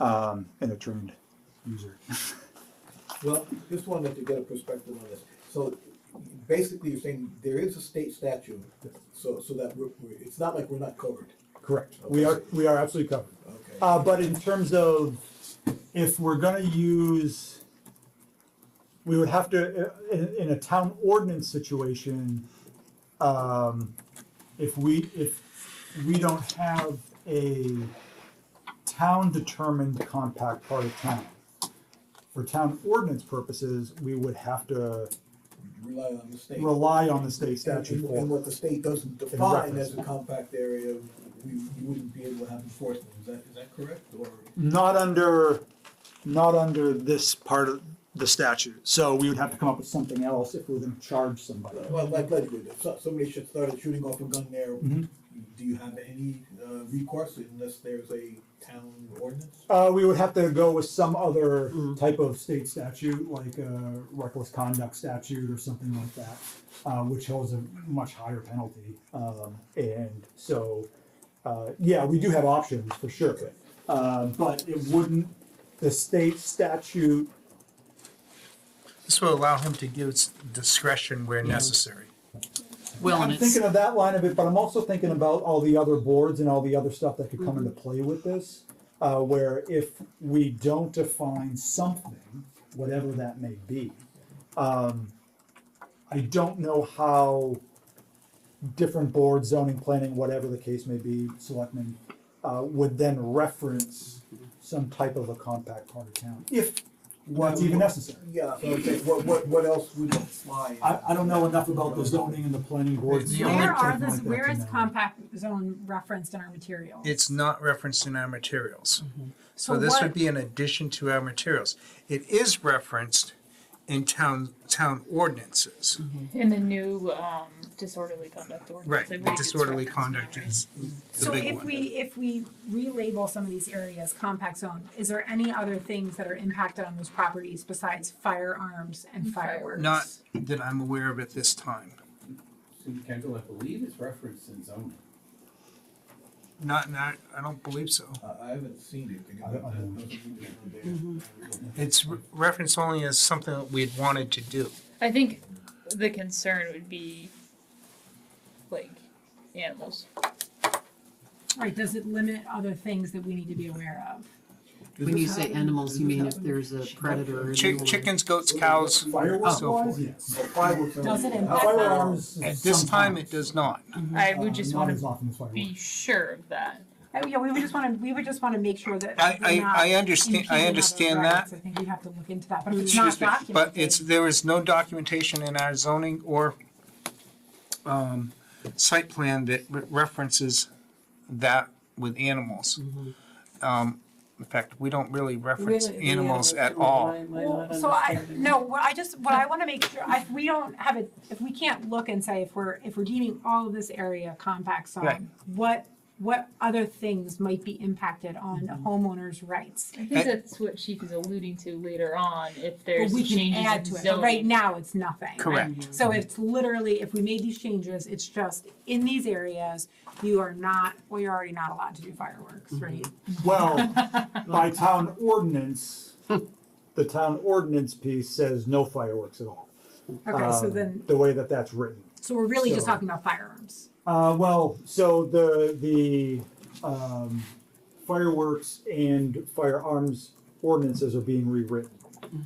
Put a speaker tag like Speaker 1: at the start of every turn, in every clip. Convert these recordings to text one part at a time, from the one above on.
Speaker 1: um, and a turned user.
Speaker 2: Well, just wanted to get a perspective on this. So basically, you're saying there is a state statute, so, so that we're, we're- it's not like we're not covered.
Speaker 1: Correct.
Speaker 3: We are, we are absolutely covered.
Speaker 2: Okay.
Speaker 1: Uh, but in terms of, if we're gonna use, we would have to, i- in, in a town ordinance situation, um, if we, if we don't have a town-determined compact part of town, for town ordinance purposes, we would have to
Speaker 2: Rely on the state.
Speaker 1: rely on the state
Speaker 2: And-
Speaker 1: statute for.
Speaker 2: And what the state doesn't define
Speaker 1: reference.
Speaker 2: as a compact area, we, you wouldn't be able to have enforcement. Is that, is that correct? Or,
Speaker 1: Not under, not under this part of the statute. So we would have to come up with something else if we were gonna charge somebody.
Speaker 2: well, like, like, we did. So- somebody should start shooting off a gun there.
Speaker 1: Mhm.
Speaker 2: Do you have any uh, recourse unless there's a town ordinance?
Speaker 1: Uh, we would have to go with some other type of state statute, like a reckless conduct statute or something like that, uh, which holds a much higher penalty. Um, and so, uh, yeah, we do have options for sure. Uh, but it wouldn't, the state statute
Speaker 4: This will allow him to give s- discretion where necessary.
Speaker 5: Well, and
Speaker 1: I'm
Speaker 5: it's,
Speaker 1: thinking of that line of it, but I'm also thinking about all the other boards and all the other stuff that could come into play with this. Uh, where if we don't define something, whatever that may be, um, I don't know how different boards, zoning, planning, whatever the case may be, selectmen, uh, would then reference some type of a compact part of town, if what's even necessary.
Speaker 2: Yeah, so I'm saying, what, what, what else would apply?
Speaker 1: I, I don't know enough about the zoning and the planning boards.
Speaker 4: The only
Speaker 6: Where are
Speaker 1: anything
Speaker 6: this,
Speaker 1: like that
Speaker 6: where
Speaker 1: to
Speaker 6: is
Speaker 1: know.
Speaker 6: compact zone referenced in our material?
Speaker 4: It's not referenced in our materials. So
Speaker 6: But
Speaker 4: this
Speaker 6: what-
Speaker 4: would be an addition to our materials. It is referenced in town, town ordinances.
Speaker 7: In the new um, disorderly conduct ordinance.
Speaker 4: Right,
Speaker 7: I
Speaker 4: the
Speaker 7: believe it's
Speaker 4: disorderly
Speaker 7: referenced.
Speaker 4: conduct is the
Speaker 6: So
Speaker 4: big
Speaker 6: if we,
Speaker 4: one.
Speaker 6: if we relabel some of these areas compact zone, is there any other things that are impacted on those properties besides firearms and fireworks?
Speaker 4: Not that I'm aware of at this time,
Speaker 8: City Kendall, I believe is referenced in zoning.
Speaker 4: not, not, I don't believe so.
Speaker 2: I, I haven't seen it.
Speaker 1: I don't- I don't know.
Speaker 4: It's re- referenced only as something that we'd wanted to do.
Speaker 7: I think the concern would be like animals.
Speaker 6: Right, does it limit other things that we need to be aware of?
Speaker 5: when you say animals, you mean if there's a predator. in
Speaker 4: Chick-
Speaker 5: the-
Speaker 4: Chickens, goats, cows,
Speaker 1: Fireworks
Speaker 4: so
Speaker 1: wise,
Speaker 4: forth.
Speaker 1: yes.
Speaker 6: Does it impact-
Speaker 1: Firearms.
Speaker 4: Oh, At this time, it does not.
Speaker 6: Mm-hmm.
Speaker 7: I would just
Speaker 1: not
Speaker 7: want
Speaker 1: as
Speaker 7: to
Speaker 1: often as fireworks.
Speaker 7: be sure of that.
Speaker 6: Uh, Yeah, we would just wanna, we would just wanna make sure that.
Speaker 4: I-
Speaker 6: they're
Speaker 4: I-
Speaker 6: not
Speaker 4: I understand- I
Speaker 6: impeding other
Speaker 4: understand
Speaker 6: rights.
Speaker 4: that.
Speaker 6: I think we have to look into that, but if it's not
Speaker 4: Excuse me,
Speaker 6: documented.
Speaker 4: but it's, there is no documentation in our zoning or um, site plan that re- references that with animals.
Speaker 6: Mm-hmm.
Speaker 4: Um, In fact, we don't really reference
Speaker 5: Really, the
Speaker 4: animals at
Speaker 5: why
Speaker 4: all.
Speaker 5: am I
Speaker 6: Well,
Speaker 5: not
Speaker 6: So I,
Speaker 5: understanding?
Speaker 6: no, what I just, what I wanna make sure, I, if we don't have it, if we can't look and say if we're, if we're deeming all of this area compact
Speaker 4: Right.
Speaker 6: zone, what, what other things might be impacted on homeowners' rights?
Speaker 7: I
Speaker 4: I-
Speaker 7: think that's what Chief is alluding to later on. If
Speaker 6: But
Speaker 7: there's
Speaker 6: we can
Speaker 7: changes
Speaker 6: add
Speaker 7: in
Speaker 6: to it, but
Speaker 7: zoning,
Speaker 6: right now, it's nothing. right?
Speaker 4: Correct.
Speaker 6: So it's literally, if we made these changes, it's just, in these areas, you are not, well, you're already not allowed to do fireworks, right?
Speaker 1: Well, by town ordinance, the town ordinance piece says no fireworks at all.
Speaker 6: Okay, so
Speaker 1: um,
Speaker 6: then,
Speaker 1: The way that that's written.
Speaker 6: so we're really just
Speaker 1: so-
Speaker 6: talking about firearms.
Speaker 1: Uh, well, so the, the, um, fireworks and firearms ordinances are being rewritten.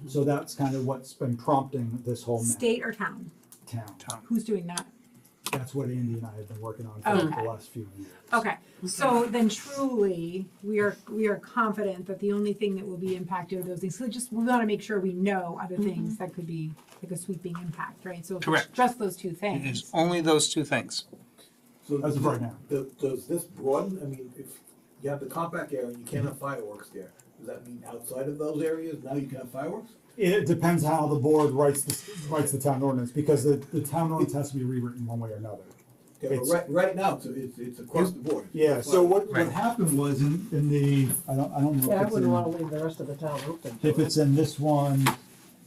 Speaker 1: So that's kind of what's been prompting this whole map
Speaker 6: Mm-hmm. State or town,
Speaker 1: town.
Speaker 6: who's doing that?
Speaker 1: That's what Andy and I have been working on for
Speaker 6: Okay.
Speaker 1: the last few years.
Speaker 6: Okay, so then truly, we are, we are confident that the only thing that will be impacted are those things, so just, we wanna make sure we know other things that could be like a sweeping impact, right? So if it's
Speaker 4: Mm-hmm. Correct.
Speaker 6: just those two
Speaker 4: It is
Speaker 6: things,
Speaker 4: only those two things.
Speaker 2: So
Speaker 1: As of right now.
Speaker 2: Does, does this broaden, I mean, if you have the compact area and you can't have fireworks there, does that mean outside of those areas, now you can have fireworks?
Speaker 1: It depends how the board writes the, writes the town ordinance, because the, the town ordinance has to be rewritten one way or another.
Speaker 2: Yeah, but
Speaker 1: It's-
Speaker 2: right, right now, it's, it's, it's across the board.
Speaker 1: Yeah, so what, what
Speaker 4: Right.
Speaker 1: happened was in, in the, I don't, I don't know
Speaker 5: Yeah, I
Speaker 1: if it's
Speaker 5: wouldn't wanna
Speaker 1: in,
Speaker 5: leave the rest of the town open. to
Speaker 1: if
Speaker 5: it.
Speaker 1: it's in this one,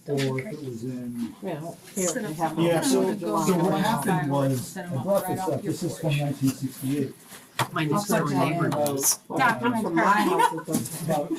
Speaker 1: or if it was in.
Speaker 5: Yeah, here,
Speaker 7: Set
Speaker 5: you
Speaker 7: up
Speaker 5: have
Speaker 7: some-
Speaker 1: Yeah,
Speaker 5: all
Speaker 1: so,
Speaker 5: the July
Speaker 1: so what
Speaker 5: going on.
Speaker 1: happened was,
Speaker 7: Set 'em
Speaker 1: I
Speaker 7: up
Speaker 1: brought
Speaker 7: right
Speaker 1: this
Speaker 7: off
Speaker 1: up,
Speaker 7: your
Speaker 1: this is from
Speaker 7: porch.
Speaker 1: nineteen sixty-eight,
Speaker 5: My
Speaker 6: I'll
Speaker 5: next door
Speaker 6: put that in.
Speaker 5: neighbor.
Speaker 6: Document
Speaker 5: From my
Speaker 6: that.
Speaker 5: house, it's okay.
Speaker 1: about